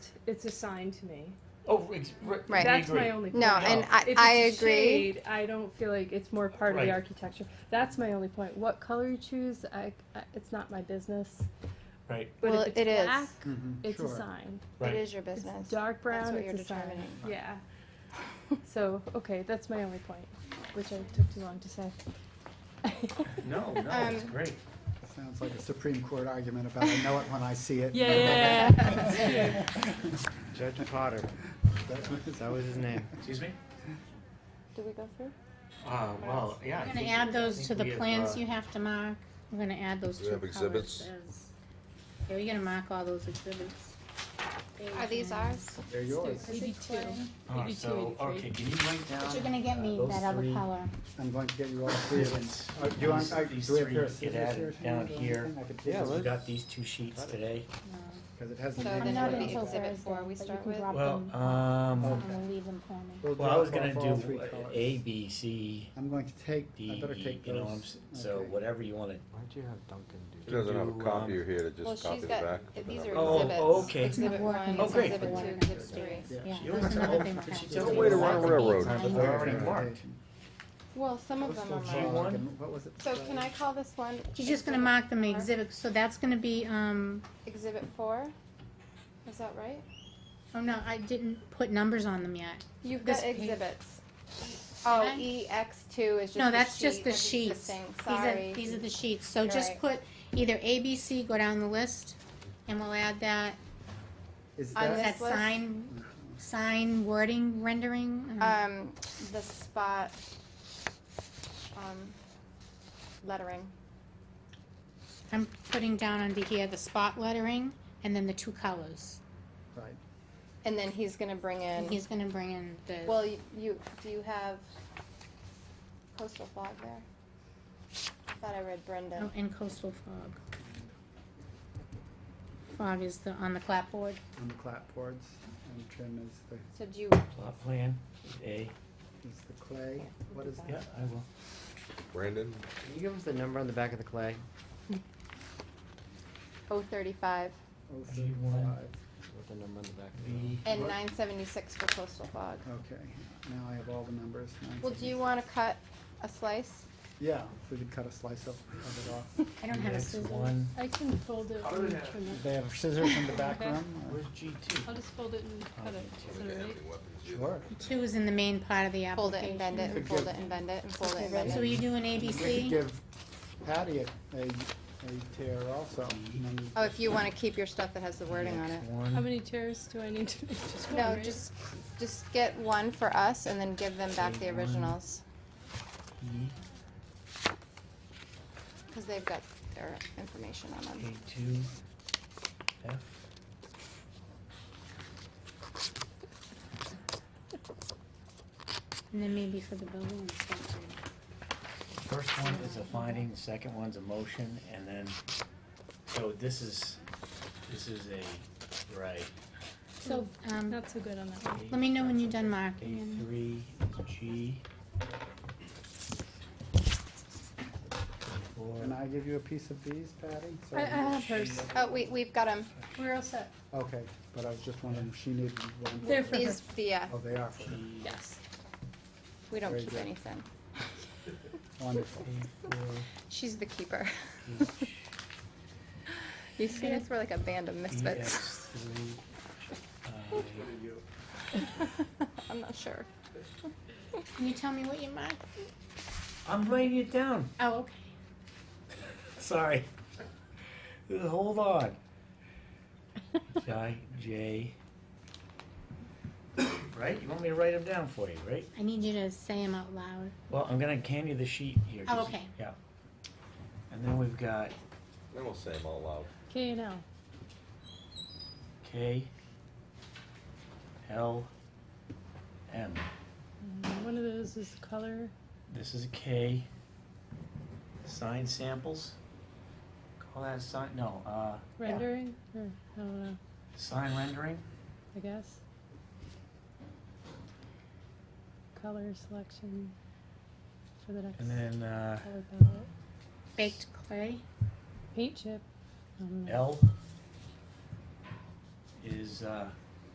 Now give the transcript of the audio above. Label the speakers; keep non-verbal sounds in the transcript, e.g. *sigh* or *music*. Speaker 1: it's a sign to me.
Speaker 2: Oh, ex- ri- we
Speaker 3: Right.
Speaker 1: That's
Speaker 2: agree.
Speaker 1: my only point.
Speaker 3: No, and I,
Speaker 1: If it's
Speaker 3: I
Speaker 1: a
Speaker 3: agree.
Speaker 1: shade, I don't feel like it's more part of
Speaker 2: Right.
Speaker 1: the architecture. That's my only point. What color you choose, I, I- it's not my business.
Speaker 2: Right.
Speaker 1: But
Speaker 3: Well,
Speaker 1: if it's
Speaker 3: it is.
Speaker 1: black,
Speaker 4: Mhm.
Speaker 1: it's
Speaker 4: Sure.
Speaker 1: a sign.
Speaker 2: Right.
Speaker 3: It is your
Speaker 1: It's
Speaker 3: business.
Speaker 1: dark brown.
Speaker 3: what
Speaker 1: it's
Speaker 3: you're
Speaker 1: a sign.
Speaker 3: determining. *laughs*
Speaker 1: Yeah. so okay, that's my only point, which I took too long to say.
Speaker 2: No, no, it's
Speaker 3: Um,
Speaker 2: great.
Speaker 4: Sounds like a Supreme Court argument about I know it when I see it.
Speaker 1: *laughs* Yeah, yeah, yeah, *laughs*
Speaker 5: Judge Potter, that was his name.
Speaker 2: Excuse me?
Speaker 3: Do we go through?
Speaker 2: Uh, well, yeah. I
Speaker 6: We're
Speaker 2: think-
Speaker 6: gonna add
Speaker 2: I
Speaker 6: those to
Speaker 2: think
Speaker 6: the
Speaker 2: we have,
Speaker 6: plans
Speaker 2: uh,
Speaker 6: you have to mark. We're gonna add those
Speaker 7: Do you
Speaker 6: two
Speaker 7: have exhibits?
Speaker 6: colors as. Yeah, we're gonna mark all those exhibits.
Speaker 3: Are these ours?
Speaker 4: They're yours.
Speaker 6: Maybe two.
Speaker 2: Uh,
Speaker 6: Maybe two
Speaker 2: so,
Speaker 6: and
Speaker 2: okay,
Speaker 6: three.
Speaker 2: can you write
Speaker 6: But
Speaker 2: down?
Speaker 6: you're gonna get me
Speaker 2: Uh, those
Speaker 6: that other
Speaker 2: three.
Speaker 6: color.
Speaker 4: I'm going to get you all three of them.
Speaker 2: Yes.
Speaker 4: Uh, Do you want,
Speaker 2: These-
Speaker 4: I-
Speaker 2: these
Speaker 4: do we have
Speaker 2: three
Speaker 4: your
Speaker 2: get
Speaker 4: scissors
Speaker 2: added
Speaker 4: here? if you
Speaker 2: down
Speaker 4: want, or
Speaker 2: here.
Speaker 4: anything? I could
Speaker 5: Yeah,
Speaker 4: take
Speaker 5: let's-
Speaker 2: We
Speaker 4: this.
Speaker 2: got these two sheets today.
Speaker 6: No.
Speaker 4: Because it has the
Speaker 3: So
Speaker 4: names
Speaker 6: I'm
Speaker 3: then
Speaker 6: not
Speaker 3: what
Speaker 4: right on
Speaker 6: in
Speaker 4: it.
Speaker 6: until
Speaker 3: exhibit
Speaker 6: Thursday,
Speaker 3: four we
Speaker 6: but you
Speaker 3: start
Speaker 6: can
Speaker 3: with?
Speaker 6: drop
Speaker 2: Well,
Speaker 6: them
Speaker 2: um,
Speaker 6: off and leave them for me.
Speaker 4: Oh, We'll
Speaker 2: well, I
Speaker 4: drop
Speaker 2: was gonna
Speaker 4: off all
Speaker 2: do
Speaker 4: three
Speaker 2: uh,
Speaker 4: colors.
Speaker 2: A, B, C,
Speaker 4: I'm going to take,
Speaker 2: D,
Speaker 4: I better
Speaker 2: E,
Speaker 4: take
Speaker 2: you know, I'm
Speaker 4: those.
Speaker 2: s- so
Speaker 4: Okay.
Speaker 2: whatever you wanna.
Speaker 5: Why'd you have Duncan
Speaker 7: She
Speaker 5: do that?
Speaker 7: doesn't have a
Speaker 2: Do,
Speaker 7: copier
Speaker 2: um,
Speaker 7: here to
Speaker 3: Well,
Speaker 7: just copy
Speaker 3: she's
Speaker 7: the
Speaker 3: got,
Speaker 7: back.
Speaker 3: if these are
Speaker 2: Oh,
Speaker 3: exhibits.
Speaker 2: okay.
Speaker 6: It's not
Speaker 3: Exhibit one,
Speaker 6: working.
Speaker 2: Oh, great.
Speaker 3: exhibit two, exhibit three.
Speaker 4: Yeah.
Speaker 6: Yeah,
Speaker 4: She
Speaker 2: always
Speaker 6: that's another
Speaker 2: has-
Speaker 6: thing we'll
Speaker 2: she
Speaker 6: have to
Speaker 2: does
Speaker 6: do.
Speaker 2: way to
Speaker 6: Lots
Speaker 7: run a
Speaker 6: of
Speaker 7: railroad.
Speaker 6: design.
Speaker 2: They're already
Speaker 4: Presentation.
Speaker 2: marked.
Speaker 3: Well, some of them are
Speaker 2: Postal
Speaker 3: marked.
Speaker 2: one.
Speaker 4: And What was it?
Speaker 3: So can I call this one?
Speaker 6: She's just gonna mark them exhibits, so that's gonna be, um,
Speaker 3: Exhibit four? Is that right?
Speaker 6: oh no, I didn't put numbers on them yet.
Speaker 3: You've
Speaker 6: This
Speaker 3: got
Speaker 6: page.
Speaker 3: exhibits. Oh,
Speaker 6: Okay.
Speaker 3: EX two is just
Speaker 6: No,
Speaker 3: the
Speaker 6: that's just
Speaker 3: sheet
Speaker 6: the
Speaker 3: of
Speaker 6: sheets. These
Speaker 3: existing.
Speaker 6: are,
Speaker 3: Sorry.
Speaker 6: these are the sheets, so
Speaker 3: You're
Speaker 6: just
Speaker 3: right.
Speaker 6: put either A, B, C, go down the list, and we'll add that,
Speaker 4: Is
Speaker 3: on
Speaker 4: that,
Speaker 6: that
Speaker 3: this list?
Speaker 6: sign, sign wording rendering. um,
Speaker 3: Um, the spot, um, lettering.
Speaker 6: I'm putting down under here the spot lettering, and then the two colors.
Speaker 4: right,
Speaker 3: And then he's gonna bring
Speaker 6: And
Speaker 3: in,
Speaker 6: he's gonna bring in the,
Speaker 3: well, you, you, do you have coastal fog there? I thought I read Brendan.
Speaker 6: oh, and coastal fog. Fog is the, on the clapboard.
Speaker 4: on the clapboards, and trim is the,
Speaker 3: So do you,
Speaker 2: Plot plan, A,
Speaker 4: is the clay. What is
Speaker 2: yeah,
Speaker 4: that?
Speaker 2: I will.
Speaker 7: Brandon,
Speaker 5: Can you give us the number on the back of the clay?
Speaker 3: oh thirty-five
Speaker 4: Oh,
Speaker 2: G one.
Speaker 4: 35.
Speaker 5: What the number on the back of the
Speaker 2: B.
Speaker 3: and
Speaker 4: What? Oh,
Speaker 3: nine seventy-six for coastal fog.
Speaker 4: Okay, now I have all the numbers. nine
Speaker 3: Well, do you
Speaker 4: seconds.
Speaker 3: wanna cut a slice?
Speaker 4: Yeah, if we could cut a slice of, of it off.
Speaker 6: I don't have a
Speaker 2: Next
Speaker 6: scissors.
Speaker 2: One,
Speaker 1: I can fold it
Speaker 2: Other
Speaker 1: and
Speaker 2: than-
Speaker 1: trim
Speaker 4: Do
Speaker 1: it.
Speaker 4: *laughs* They have scissors in the back room? or-
Speaker 2: where's G two?
Speaker 1: I'll just fold it and cut it. Is
Speaker 7: look at
Speaker 1: that all right?
Speaker 7: Anthony Weapons. you-
Speaker 4: Sure.
Speaker 6: Two is in the main part of the
Speaker 3: Fold it
Speaker 6: application.
Speaker 3: and bend it, and fold it and bend it, and fold it and bend
Speaker 6: So
Speaker 3: it.
Speaker 6: are you doing
Speaker 4: We could
Speaker 6: ABC?
Speaker 4: give Patty a, a, a tear also. and then
Speaker 3: Oh, if you wanna keep your stuff that has the wording on it.
Speaker 2: Next
Speaker 1: How
Speaker 2: One,
Speaker 1: many tears do I need to make? Just one,
Speaker 3: No,
Speaker 1: right?
Speaker 3: just, just get one for us and then give them back the
Speaker 2: Take one.
Speaker 3: originals,
Speaker 2: E,
Speaker 3: cause they've got their information on
Speaker 2: A
Speaker 3: them.
Speaker 2: two, F.
Speaker 6: And then maybe for the building inspector.
Speaker 2: First one is a finding, the second one's a motion, and then, so this is, this is a, right.
Speaker 6: So, um,
Speaker 1: not so good on that one.
Speaker 6: let me know when you're done
Speaker 2: A
Speaker 6: marking. and-
Speaker 2: three is G. Four.
Speaker 4: Can I give you a piece of these, Patty? So-
Speaker 1: I, I have hers.
Speaker 3: Oh, we, we've got them.
Speaker 1: We're all set.
Speaker 4: Okay, but I was just wondering, if she needed one. for-
Speaker 1: They're for her.
Speaker 3: These, yeah,
Speaker 4: Oh, they are for her.
Speaker 2: G,
Speaker 1: Yes.
Speaker 3: we don't
Speaker 4: Very
Speaker 3: keep
Speaker 4: good.
Speaker 3: anything.
Speaker 4: Wonderful.
Speaker 2: A four,
Speaker 3: She's the keeper.
Speaker 2: H,
Speaker 3: *laughs* You see us, we're like a band of
Speaker 2: E,
Speaker 3: misfits.
Speaker 2: X, three, I,
Speaker 3: *laughs* I'm not sure.
Speaker 6: Can you tell me what you marked?
Speaker 2: I'm writing it down,
Speaker 6: Oh, okay.
Speaker 2: sorry. *laughs* Hold on. I, J. Right, you want me to write them down for you, right?
Speaker 6: I need you to say them out loud.
Speaker 2: Well, I'm gonna hand you the sheet here.
Speaker 6: Oh,
Speaker 2: 'cause-
Speaker 6: okay.
Speaker 2: Yeah. And then we've got
Speaker 7: Then we'll say them all out.
Speaker 1: K and L.
Speaker 2: K, L, M.
Speaker 1: Mm, One of those is color.
Speaker 2: This is a K. Sign samples. Call that sign, no, uh,
Speaker 1: Rendering? Or, I don't know,
Speaker 2: sign rendering,
Speaker 1: I guess. Color selection for the next
Speaker 2: and then, uh,
Speaker 1: color palette.
Speaker 6: Baked clay.
Speaker 1: Um, Paint chip. I don't know.
Speaker 2: L is, uh,